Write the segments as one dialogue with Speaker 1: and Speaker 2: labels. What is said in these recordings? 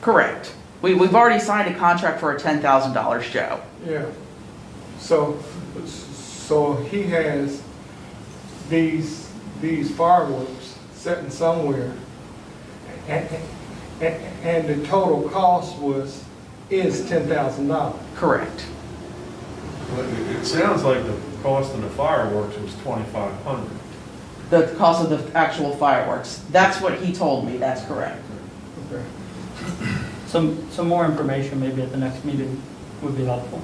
Speaker 1: Correct. We, we've already signed a contract for a ten thousand dollar show.
Speaker 2: Yeah, so, so he has these, these fireworks sitting somewhere. And, and, and the total cost was, is ten thousand dollars.
Speaker 1: Correct.
Speaker 3: Well, It it sounds like the cost of the fireworks was twenty-five hundred.
Speaker 1: The cost of the actual fireworks. That's what he told me. That's correct.
Speaker 2: Okay.
Speaker 4: Some, some more information maybe at the next meeting would be helpful.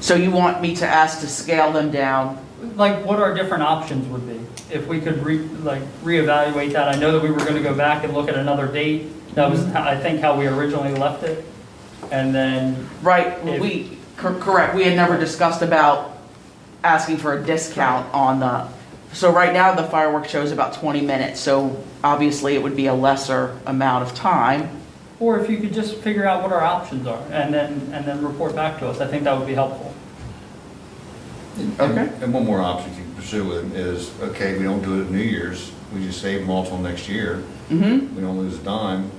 Speaker 1: So you want me to ask to scale them down?
Speaker 4: Like, what our different options would be, if we could re, like, reevaluate that. I know that we were gonna go back and look at another date. That was, how- I think, how we originally left it. And then,
Speaker 1: Right,
Speaker 4: If-
Speaker 1: we, cor- correct, we had never discussed about asking for a discount on the, so right now the fireworks show is about twenty minutes, so obviously it would be a lesser amount of time.
Speaker 4: or if you could just figure out what our options are, and then, and then report back to us, I think that would be helpful.
Speaker 5: And-
Speaker 1: Okay.
Speaker 5: And one more option you can pursue with them is, okay, we don't do it at New Year's, we just save them all till next year,
Speaker 1: Mm-hmm.
Speaker 5: we don't lose a dime,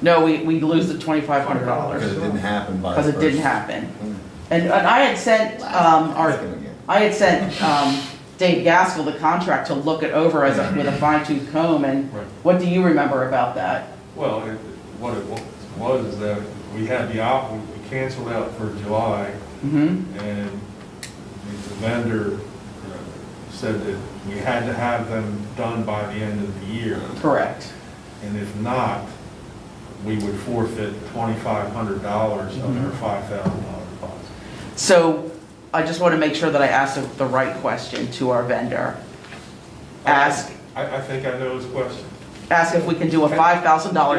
Speaker 1: No, we, we lose the twenty-five hundred
Speaker 5: because
Speaker 1: dollars,
Speaker 5: it didn't happen by the
Speaker 1: because
Speaker 5: first.
Speaker 1: it didn't happen.
Speaker 5: Mm.
Speaker 1: And, and I had sent, um, our,
Speaker 5: Happen again.
Speaker 1: I had sent, um, Dave Gaskell the contract to look it over as a, with a fine tooth comb, and
Speaker 3: Right.
Speaker 1: what do you remember about that?
Speaker 3: Well, it- what it wa- was is that we had the op, we canceled out for July,
Speaker 1: Mm-hmm,
Speaker 3: and the the vendor uh, said that we had to have them done by the end of the year,
Speaker 1: correct.
Speaker 3: and if not, we would forfeit twenty-five hundred dollars of
Speaker 1: Mm-hmm.
Speaker 3: our five thousand dollar deposit.
Speaker 1: So I just want to make sure that I ask the- the right question to our vendor. Ask,
Speaker 3: I, I think I know his question.
Speaker 1: ask if we can do a $5,000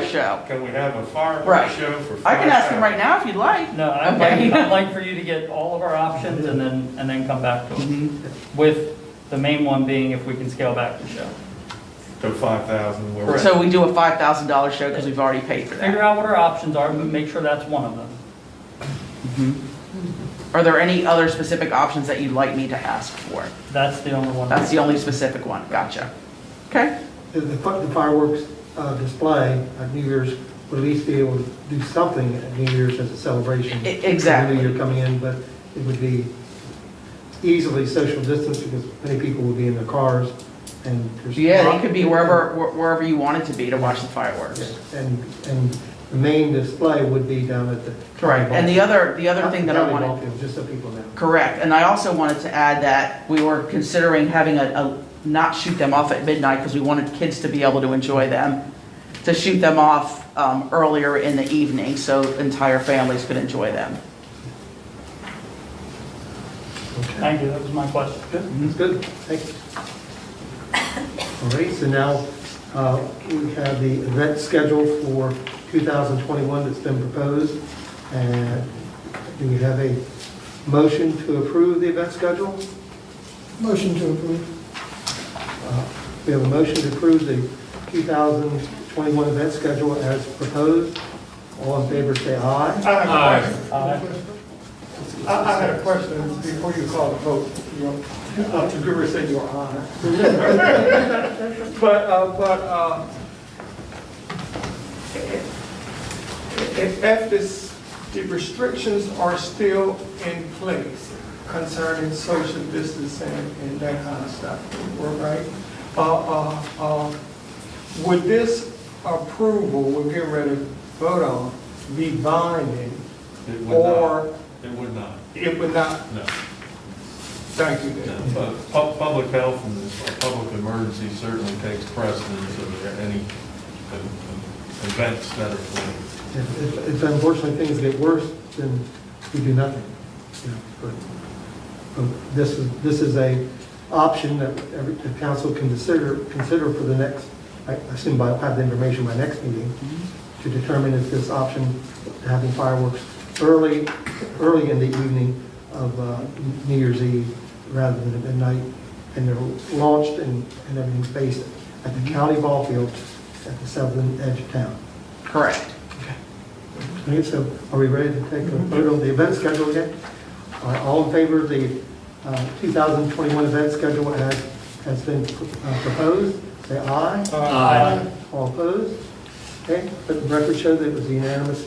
Speaker 1: show.
Speaker 3: Can we have a
Speaker 1: Right.
Speaker 3: fireworks show for?
Speaker 1: I can ask him
Speaker 3: $5,000?
Speaker 1: right now if you'd like.
Speaker 4: No, I'd
Speaker 1: Okay.
Speaker 4: like, I'd like for you to get all of our options and then, and then come back to us,
Speaker 1: Mhm.
Speaker 4: with the main one being if we can scale back the show.
Speaker 3: To five thousand, where we're.
Speaker 1: So we do a $5,000 show because we've already paid for
Speaker 4: Figure
Speaker 1: that.
Speaker 4: out what our options are, but make sure that's one of them.
Speaker 1: Are there any other specific options that you'd like me to ask for?
Speaker 4: That's the only one.
Speaker 1: That's the only specific one, gotcha. Okay,
Speaker 6: The- The fi- the fireworks uh, display at New Year's would at least be able to do something at New Year's as a celebration.
Speaker 1: E- exactly.
Speaker 6: For the New Year coming in, but it would be easily social distance because many people would be in their cars and there's.
Speaker 1: yeah, it could be wherever, wh- wherever you want it to be to watch the fireworks.
Speaker 6: And, and the main display would be down at the.
Speaker 1: Correct, and the other, the other thing that I
Speaker 6: County
Speaker 1: wanted.
Speaker 6: ball field, Just so people know.
Speaker 1: Correct, and I also wanted to add that we were considering having a, a, not shoot them off at midnight, because we wanted kids to be able to enjoy them, to shoot them off, um, earlier in the evening, so entire families could enjoy them.
Speaker 4: Thank you, that was my question.
Speaker 6: That's good, thank you. All right, so now uh, we have the event schedule for 2021 that's been proposed. And do we have a motion to approve the event schedule?
Speaker 7: Motion to approve.
Speaker 6: Uh, We have a motion to approve the 2021 event schedule as proposed. All in favor, say aye.
Speaker 2: I have a
Speaker 4: Aye.
Speaker 2: question. I, I had a question before you called the vote, you know, uh, the Gruber said your honor. But, uh, but, uh, if, if this, the restrictions are still in place concerning social distancing and that kind of stuff, we're right? Uh, uh, uh, would this approval we're getting ready to vote on be binding
Speaker 3: It would not.
Speaker 2: or
Speaker 3: It would not,
Speaker 2: it would not,
Speaker 3: no.
Speaker 2: thank you,
Speaker 3: no.
Speaker 2: Dave.
Speaker 3: Pu- pu- Public health and this public emergency certainly takes precedence over any um, um, events that are planned.
Speaker 6: If- If if unfortunately things get worse, then we do nothing. you know, but- but This is, this is a option that every, the council can consider, consider for the next, I assume I'll have the information by next meeting, to determine if this option, having fireworks early, early in the evening of uh, New Year's Eve rather than at midnight, and they're launched and, and everything's based at the county ball field at the southern edge of town.
Speaker 1: Correct.
Speaker 6: Okay, so are we ready to take a vote on the event schedule yet? Are All in favor of the uh, 2021 event schedule as has been uh, proposed, say aye.
Speaker 2: Uh,
Speaker 6: All opposed? Okay, let the record show that it was a unanimous